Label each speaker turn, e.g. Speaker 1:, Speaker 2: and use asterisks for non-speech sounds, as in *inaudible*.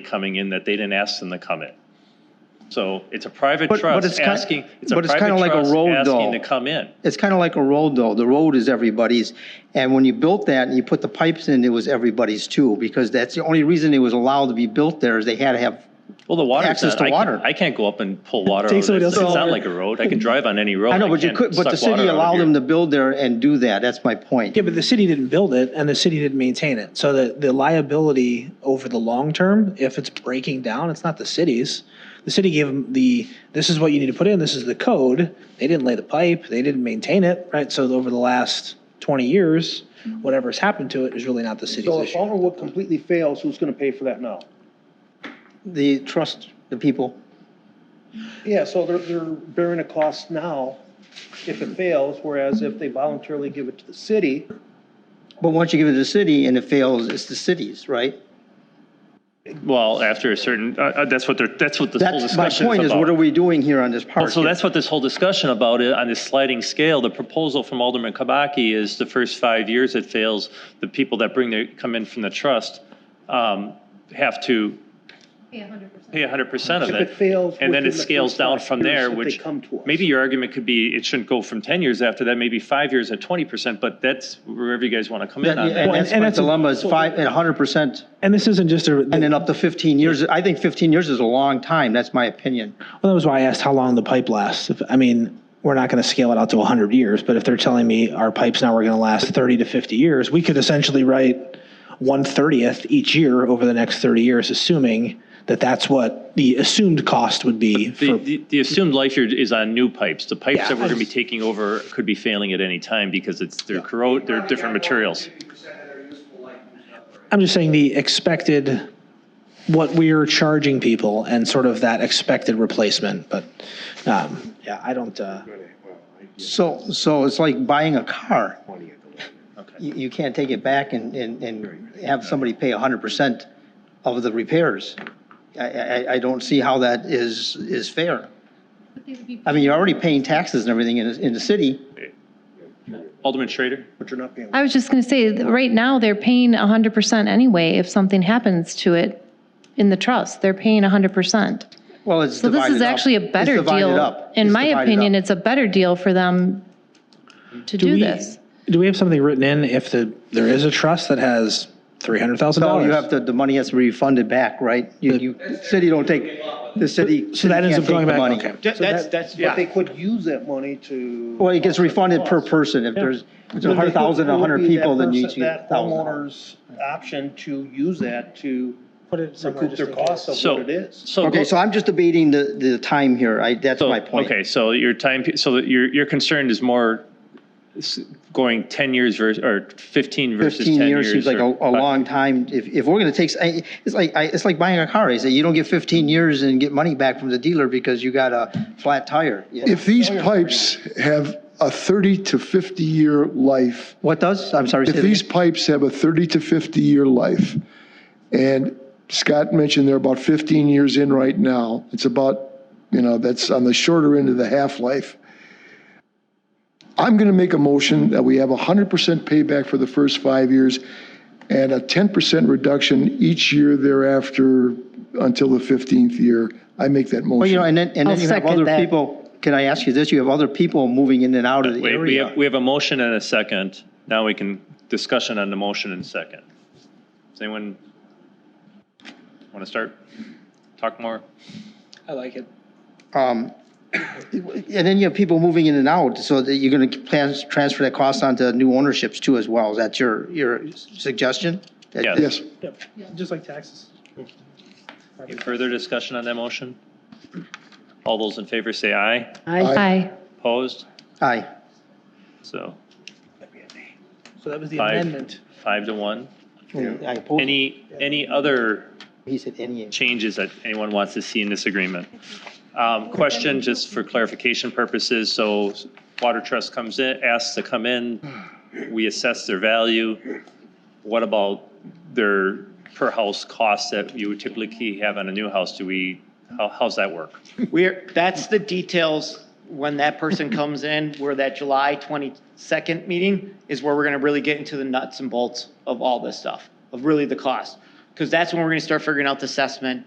Speaker 1: coming in that they didn't ask them to come in. So it's a private
Speaker 2: But- but
Speaker 1: trust
Speaker 2: it's kin-
Speaker 1: asking, it's a
Speaker 2: but it's kinda
Speaker 1: private
Speaker 2: like a
Speaker 1: trust
Speaker 2: road,
Speaker 1: asking
Speaker 2: though.
Speaker 1: to come in.
Speaker 2: It's kind of like a road though. The road is everybody's. And when you built that and you put the pipes in, it was everybody's too, because that's the only reason it was allowed to be built there is they had to have,
Speaker 1: Well, the water's
Speaker 2: Access
Speaker 1: not-
Speaker 2: to
Speaker 1: I can't-
Speaker 2: water.
Speaker 1: I can't go up and pull water.
Speaker 3: Take
Speaker 1: out of
Speaker 3: somebody
Speaker 1: this. It's
Speaker 3: else's
Speaker 1: not
Speaker 3: water.
Speaker 1: like a road. I can drive on any road.
Speaker 2: I know, but you
Speaker 1: can't
Speaker 2: could, but the
Speaker 1: suck water out
Speaker 2: city
Speaker 1: of
Speaker 2: allowed
Speaker 1: here.
Speaker 2: them to build there and do that. That's my point.
Speaker 3: Yeah, but the city didn't build it and the city didn't maintain it. So the, the liability over the long term, if it's breaking down, it's not the city's. The city gave them the, this is what you need to put in, this is the code. They didn't lay the pipe, they didn't maintain it, right? So over the last twenty years, whatever's happened to it is really not the city's
Speaker 4: So if
Speaker 3: issue.
Speaker 4: Alderwood completely fails, who's gonna pay for that now?
Speaker 2: The trust, the people.
Speaker 4: Yeah, so they're, they're bearing a cost now if it fails, whereas if they voluntarily give it to the city,
Speaker 2: But once you give it to the city and it fails, it's the city's, right?
Speaker 1: Well, after a certain, uh, uh, that's what they're, that's what this whole
Speaker 2: That's my
Speaker 1: discussion
Speaker 2: point
Speaker 1: is
Speaker 2: is, what are
Speaker 1: about.
Speaker 2: we doing here on this part?
Speaker 1: So that's what this whole discussion about it, on this sliding scale, the proposal from Alderman Kabaki is the first five years it fails, the people that bring their, come in from the trust, um, have to
Speaker 5: Pay hundred percent.
Speaker 1: pay hundred percent of
Speaker 4: If
Speaker 1: it.
Speaker 4: it fails
Speaker 1: And then
Speaker 4: within
Speaker 1: it
Speaker 4: the
Speaker 1: scales
Speaker 4: first
Speaker 1: down
Speaker 4: five
Speaker 1: from there,
Speaker 4: years if they
Speaker 1: which,
Speaker 4: come to us.
Speaker 1: maybe your argument could be, it shouldn't go from ten years after that, maybe five years at twenty percent, but that's wherever you guys want to come in
Speaker 2: That-
Speaker 1: on that.
Speaker 2: And that's
Speaker 3: and
Speaker 2: my
Speaker 3: that's a-
Speaker 2: dilemma is five, and hundred percent,
Speaker 3: And this isn't just a,
Speaker 2: and
Speaker 3: well,
Speaker 2: then up to fifteen years. I think fifteen years is a long time. That's my opinion.
Speaker 3: that was why I asked how long the pipe lasts. If- I mean, we're not gonna scale it out to hundred years, but if they're telling me our pipes now are gonna last thirty to fifty years, we could essentially write one thirtieth each year over the next thirty years, assuming that that's what the assumed cost would be.
Speaker 1: The,
Speaker 3: For,
Speaker 1: the- the assumed life year is on new pipes. The pipes
Speaker 3: Yeah.
Speaker 1: that we're gonna be taking over could be failing at any time because it's, they're corrode, they're different materials.
Speaker 3: I'm just saying the expected, what we're charging people and sort of that expected replacement. But um, yeah, I don't. Uh,
Speaker 2: So, so it's like buying a car. You, you can't take it back and, and, and have somebody pay hundred percent of the repairs. I, I, I don't see how that is, is fair.
Speaker 5: But they would be.
Speaker 2: I mean, you're already paying taxes and everything in, in the city.
Speaker 1: Alderman Schrader?
Speaker 4: but you're not paying.
Speaker 5: I was just gonna say, that right now, they're paying hundred percent anyway, if something happens to it in the trust, they're paying hundred percent.
Speaker 2: Well, it's
Speaker 5: So
Speaker 2: divided
Speaker 5: this is
Speaker 2: up.
Speaker 5: actually a
Speaker 2: It's
Speaker 5: better
Speaker 2: divided
Speaker 5: deal.
Speaker 2: up.
Speaker 5: In
Speaker 2: It's
Speaker 5: my
Speaker 2: divided
Speaker 5: opinion,
Speaker 2: up.
Speaker 5: it's a better deal for them to do
Speaker 3: we-
Speaker 5: this.
Speaker 3: Do we have something written in if the, there is a trust that has three hundred thousand
Speaker 2: No,
Speaker 3: dollars?
Speaker 2: you have to, the money has to be refunded back, right? You, you, city don't take, the city.
Speaker 3: So that
Speaker 2: city
Speaker 3: ends
Speaker 2: can't
Speaker 3: up
Speaker 2: take the
Speaker 3: going back,
Speaker 2: money.
Speaker 3: okay.
Speaker 4: That's, that's. But they could use that money to.
Speaker 2: Well, it gets refunded per person. If there's, if there's a hundred thousand, a hundred people, then you see a
Speaker 4: That
Speaker 2: thousand.
Speaker 4: homeowner's option to use that to
Speaker 3: Put it somewhere just
Speaker 4: recoup their
Speaker 3: in case.
Speaker 4: costs of
Speaker 1: So,
Speaker 4: what it is.
Speaker 1: so.
Speaker 2: Okay, so I'm just debating the, the time here. I, that's
Speaker 1: so-
Speaker 2: my point.
Speaker 1: Okay, so your time, pe- so that your, your concern is more s- going ten years versus, or fifteen versus ten years.
Speaker 2: Fifteen years seems like a,
Speaker 1: or-
Speaker 2: a long time. If, if we're gonna take, I- it's like, I, it's like buying a car. I say, you don't get fifteen years and get money back from the dealer because you got a flat tire. you know?
Speaker 6: If these pipes have a 30 to 50-year life,
Speaker 2: What does? I'm sorry. say
Speaker 6: if
Speaker 2: that again.
Speaker 6: these pipes have a 30 to 50-year life, and Scott mentioned they're about 15 years in right now, it's about, you know, that's on the shorter end of the half-life. I'm going to make a motion that we have 100% payback for the first five years and a 10% reduction each year thereafter until the 15th year. I make that motion.
Speaker 2: Well, you know, and then, and
Speaker 7: I'll
Speaker 2: then you have
Speaker 7: second
Speaker 2: other
Speaker 7: that.
Speaker 2: people, can I ask you this? You have other people moving in and out of the
Speaker 1: Wait, we have,
Speaker 2: area.
Speaker 1: we have a motion and a second. Now we can, discussion on the motion and second. Does anyone want to start? Talk more?
Speaker 3: I like it.
Speaker 2: Um, And then you have people moving in and out, so that you're going to plan, transfer that cost onto new ownerships too as well. Is that your, your suggestion? That-
Speaker 1: Yes.
Speaker 6: Yes.
Speaker 3: Just like taxes.
Speaker 1: Any further discussion on that motion? All those in favor say aye.
Speaker 7: I,
Speaker 5: Aye.
Speaker 1: Opposed?
Speaker 2: Aye.
Speaker 1: So
Speaker 3: So that was the
Speaker 1: Five.
Speaker 3: amendment.
Speaker 1: five to one.
Speaker 2: I oppose it.
Speaker 1: Any, any other
Speaker 2: He said any.
Speaker 1: changes that anyone wants to see in this agreement? Um, Question, just for clarification purposes, so Water Trust comes in, asks to come in, we assess their value. What about their per house cost that you would typically have on a new house? Do we, how, how's that work?
Speaker 8: *laughs* We're, that's the details when that person comes in, where that July 22nd meeting is where we're going to really get into the nuts and bolts of all this stuff, of really the cost. Because that's when we're going to start figuring out the assessment.